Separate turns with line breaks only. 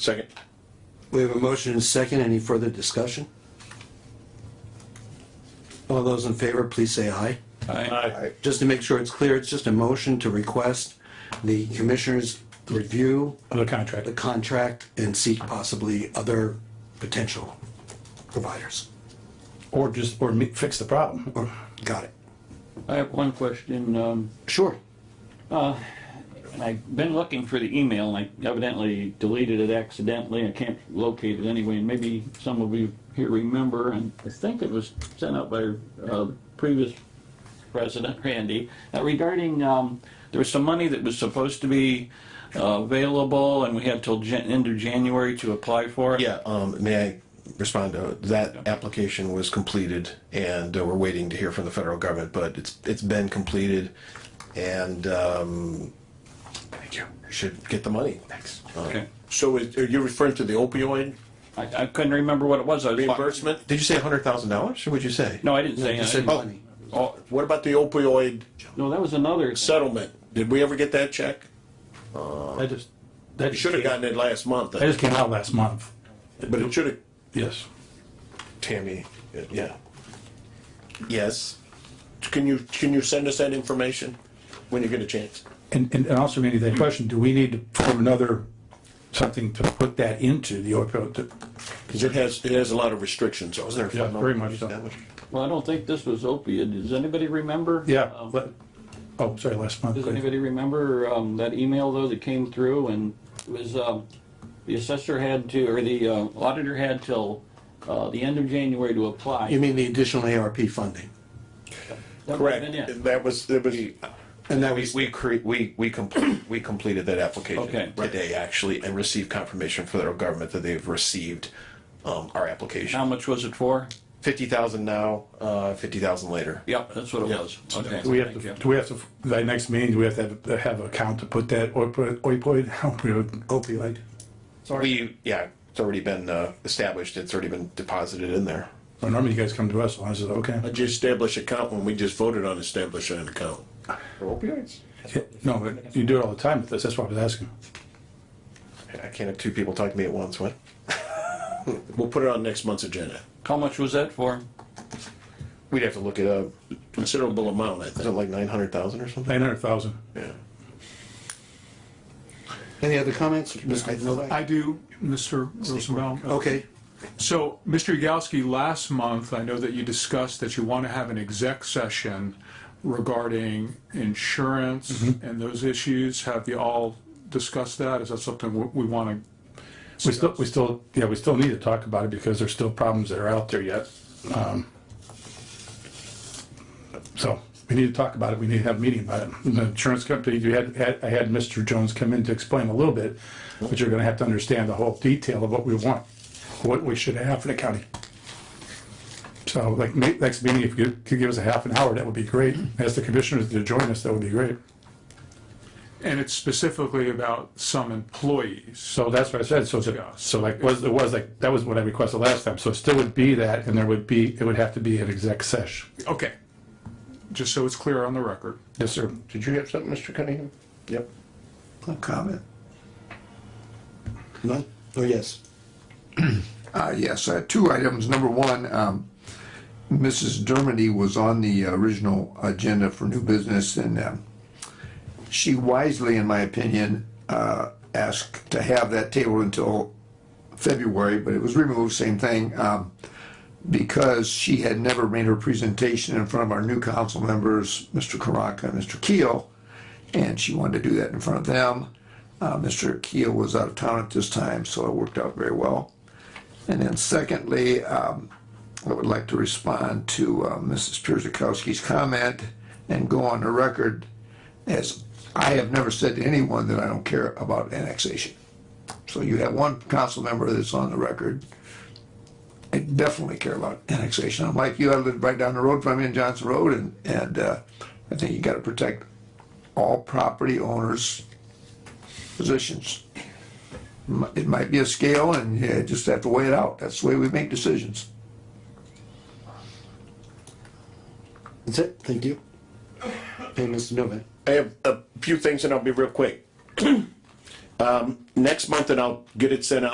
Second.
We have a motion and a second. Any further discussion? All those in favor, please say aye.
Aye.
Just to make sure it's clear, it's just a motion to request the commissioners review
The contract.
the contract and seek possibly other potential providers.
Or just, or me- fix the problem.
Or- Got it?
I have one question, um,
Sure.
and I've been looking for the email, and I evidently deleted it accidentally, I can't locate it anyway, and maybe some of you here remember, and I think it was sent out by, uh, previous President Randy, uh, regarding, um, there was some money that was supposed to be uh, available, and we had till Jan- end of January to apply for it.
Yeah, um, may I respond to, that application was completed and uh, we're waiting to hear from the federal government, but it's, it's been completed and, um, should get the money. Um, Thanks.
Okay.
So is- are you referring to the opioid?
I, I couldn't remember what it was, I was.
Reimbursement?
Did you say a hundred thousand dollars or would you say?
No, I didn't say.
You said
anything.
money.
Oh,
What about the opioid
No, that was another. thing.
settlement? Did we ever get that check?
I just, that
You should have gotten it last month,
That just came out last month.
but it should have,
Yes.
Tammy, yeah. Yes.
can you, can you send us that information when you get a chance?
And, and and also Randy, that question, do we need to form another, something to put that into the opioid? to-
Because it has, it has a lot of restrictions, so isn't there?
Yeah, very much so.
Well, I don't think this was opiate. Does anybody remember?
Yeah,
Um,
let- oh, sorry, last month.
Does anybody remember um, that email though that came through and it was, um, the assessor had to, or the uh, auditor had till uh, the end of January to apply?
You mean the additional ARP funding?
That would've been it.
Correct. That was, that was,
And that
We,
was,
we create, we, we complete, we completed that application
Okay.
today actually and received confirmation from the federal government that they've received, um, our application.
How much was it for?
Fifty thousand now, uh, fifty thousand later.
Yep, that's what it was. Okay.
Do we have
Thank
to,
you.
do we have to, that next meeting, do we have to have- have an account to put that opioid, opioid, opioid?
Opioid.
We, yeah, it's already been, uh, established, it's already been deposited in there.
Normally you guys come to us, and I says, okay.
I just established account when we just voted on establishing an account.
Opioids?
Yeah, No, but you do it all the time with this, that's why I was asking.
I can't have two people talk to me at once, what?
We'll put it on next month's agenda.
How much was that for?
We'd have to look it up, is
Considerable amount, I think.
it like nine hundred thousand or something?
Nine hundred thousand.
Yeah.
Any other comments? Mr. Novak?
I do, Mr. Rosenbaum. Uh,
Okay,
So, Mr. Yagowski, last month, I know that you discussed that you want to have an exec session regarding insurance and those issues. Have you all discussed that? Is that something we- we want
We still, we still, yeah, we still need to talk about it because there's still problems that are out there yet. Um, So we need to talk about it. We need to have a meeting about it. And The insurance company, you had, had, I had Mr. Jones come in to explain a little bit, but you're gonna have to understand the whole detail of what we want, what we should have for the county. So like, ma- next meeting, if you could give us a half an hour, that would be great. Ask the commissioners to join us, that would be great.
to, and it's specifically about some employees.
So that's what I said, so, it's a- so like, was, it was like, that was what I requested last time, so it still would be that, and there would be, it would have to be an exec sesh.
Okay, just so it's clear on the record.
Yes, sir.
Did you have something, Mr. Cunningham? Yep.
No comment.
none? Oh, yes.
Uh, Yes, uh, two items. Number one, um, Mrs. Dermody was on the original agenda for new business, and um, she wisely, in my opinion, uh, asked to have that table until February, but it was removed, same thing, um, because she had never made her presentation in front of our new council members, Mr. Karaka and Mr. Keel, and she wanted to do that in front of them. Uh, Mr. Keel was out of town at this time, so it worked out very well. And then secondly, um, I would like to respond to uh, Mrs. Pierzakowski's comment and go on the record as I have never said to anyone that I don't care about annexation. So you have one council member that's on the record. I definitely care about annexation. I'm like you, I live right down the road from you in Johnson Road and, and uh, I think you gotta protect all property owners' positions it might be a scale and you just have to weigh it out. That's the way we make decisions.
That's it? Thank you. Okay, Mr. Novak?
I have a few things and I'll be real quick. Um, next month and I'll get it sent out.